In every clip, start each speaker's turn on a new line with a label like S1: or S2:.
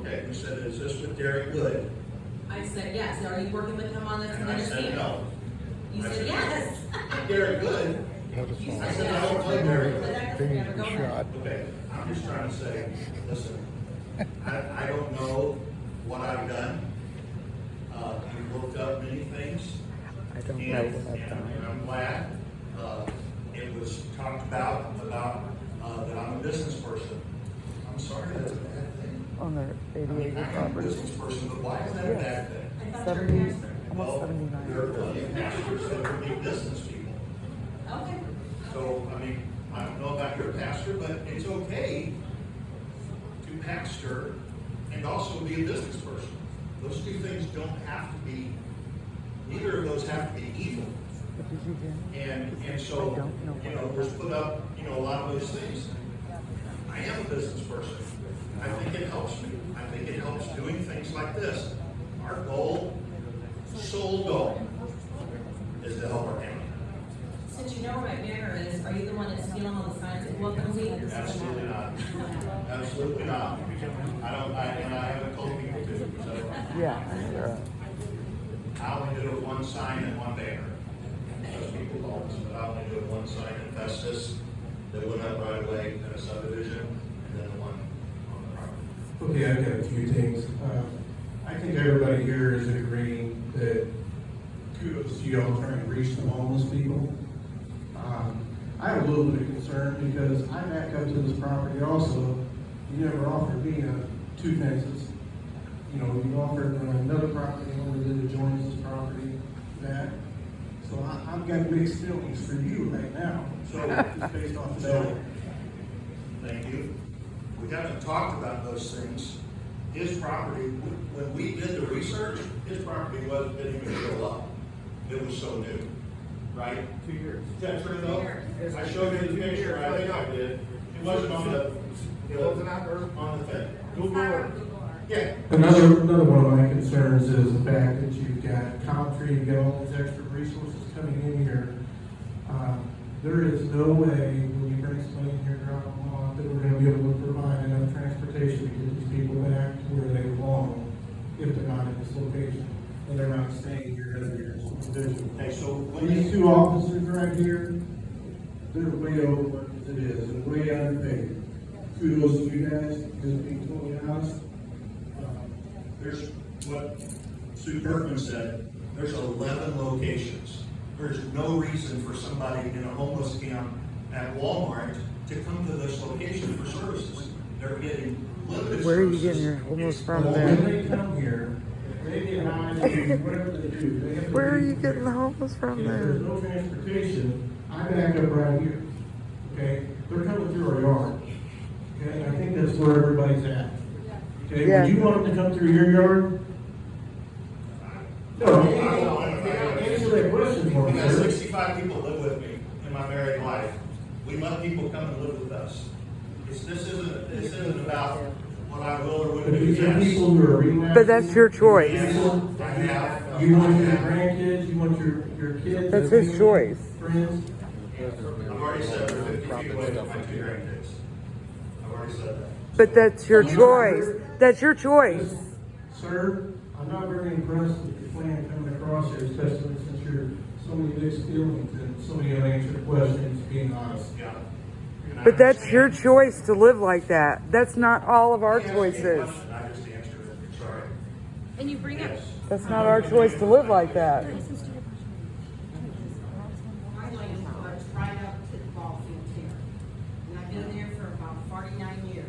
S1: Okay, you said, is this with Derek Wood?
S2: I said, yes, are you working with him on this?
S1: And I said, no.
S2: You
S1: I
S2: said,
S1: said,
S2: yes.
S1: Derek Wood?
S2: You
S1: I
S2: said
S1: said, I
S2: yes.
S1: don't play Derek
S2: But
S1: Wood.
S2: that doesn't
S3: Finish
S2: ever go
S3: the
S2: nowhere.
S3: shot.
S1: Okay, I'm just trying to say, listen, I, I don't know what I've done. Uh, you looked up many things.
S3: I don't know
S1: And,
S3: what I've
S1: and
S3: done.
S1: I'm glad, uh, it was talked about, about, uh, that I'm a business person. I'm sorry, that's a bad thing.
S3: On their
S1: I mean,
S3: 88
S1: I'm a
S3: property,
S1: business person, but why is that a bad thing?
S2: I thought you were
S3: 70,
S2: an expert.
S3: almost
S1: Well, There are
S3: 79.
S1: plenty of pastors that are big business people.
S2: Okay.
S1: So, I mean, I don't know about your pastor, but it's okay to pastor and also be a business person. Those two things don't have to be, neither of those have to be evil.
S3: What did you do?
S1: And, and so,
S3: I don't know.
S1: you know, was put up, you know, a lot of those things. I am a business person. I think it helps me. I think it helps doing things like this. Our goal, sole goal, is to help our county.
S2: Since you know where my mirror is, are you the one that's stealing all the signs at Welcome Week?
S1: Absolutely not. Absolutely not. I don't, I, and I haven't told people to, so
S3: Yeah, you're right.
S1: I only do it one sign and one banner. Most people don't, but I only do it one sign in Festus that went up right away in a subdivision, and then the one on the property.
S4: Okay, I've got a few things. Uh, I think everybody here is agreeing that kudos to y'all trying to reach the homeless people. Um, I have a little bit of concern because I back up to this property also. You never offered me uh, two fences. You know, you offered uh, another property owner that adjoins this property that. So I, I've got mixed feelings for you right now. So just based off of that.
S1: Thank you. We haven't talked about those things. His property, when we did the research, his property wasn't, didn't even show up. It was so new, right? Two years. Is that true though? I showed you the picture, I think I did. It wasn't on the, it wasn't out there on the thing. Google or? Yeah.
S4: Another, another one of my concerns is the fact that you've got Comtree, you've got all these extra resources coming in here. Um, There is no way when you bring somebody in here, drop them off, that we're gonna be able to provide enough transportation to get these people back to where they belong if they're not in this location and they're not staying here as their division.
S1: Okay, so when
S4: These
S1: you,
S4: two officers right here, they're way overworked as it is, and way underpaid. Kudos to you guys, just being totally honest. Um,
S1: there's what Sue Kirkman said, there's eleven locations. There's no reason for somebody in a homeless camp at Walmart to come to this location for services. They're getting limited services.
S3: Where are you getting your homeless
S1: It's
S3: from
S4: Well,
S3: there?
S4: When they come here, if they get high, they do whatever they do, they have to.
S3: Where are you
S4: leave.
S3: getting the homeless from
S4: If there's
S3: there?
S4: no transportation, I back up right here, okay? They're coming through our yard, okay? I think that's where everybody's at. Okay,
S3: Yeah.
S4: when you want them to come through your yard?
S1: I
S4: No,
S1: don't know.
S4: answer that question for
S1: I've
S4: me,
S1: got
S4: sir.
S1: sixty-five people live with me in my married life. We let people come and live with us. It's, this isn't, this isn't about what I will or
S4: But
S1: wouldn't do,
S4: these are
S1: yes.
S4: people who are relapsing.
S3: But that's your choice. uh,
S1: Yes, I have.
S4: You want your grandkids, you want your, your kids.
S3: That's
S4: your
S3: his
S4: family,
S3: choice.
S4: Friends.
S1: I've already said we're fifty feet away from my two grandkids. I've already said that.
S3: But that's your choice. That's your choice.
S4: Sir, I'm not very impressed with your plan coming across here, especially since you're so many mixed feelings and so many unanswered questions, being honest.
S1: Yeah. And I
S3: But that's
S1: understand.
S3: your choice to live like that. That's not all of our
S1: Yes, it
S3: choices.
S1: wasn't. I just answered it, sorry.
S5: And you bring up
S1: Yes.
S3: That's not our choice to live like that.
S2: My land goes right up to the ball field here, and I've been there for about forty-nine years.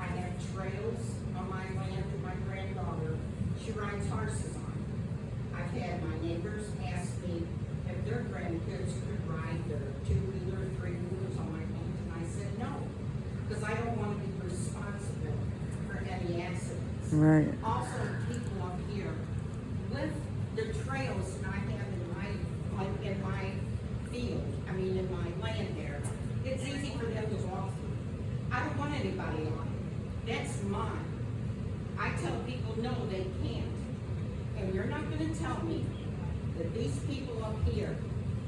S2: I have trails on my land that my granddaughter, she rides horses on. I've had my neighbors ask me if their grandkids could ride their two-wheeler, three-wheelers on my land, and I said no, because I don't want to be responsible for any accidents
S3: Right.
S2: also people up here with the trails that I have in my, like, in my field, I mean, in my land there, it's easy for them to walk through. I don't want anybody on it. That's mine. I tell people, no, they can't. And you're not gonna tell me that these people up here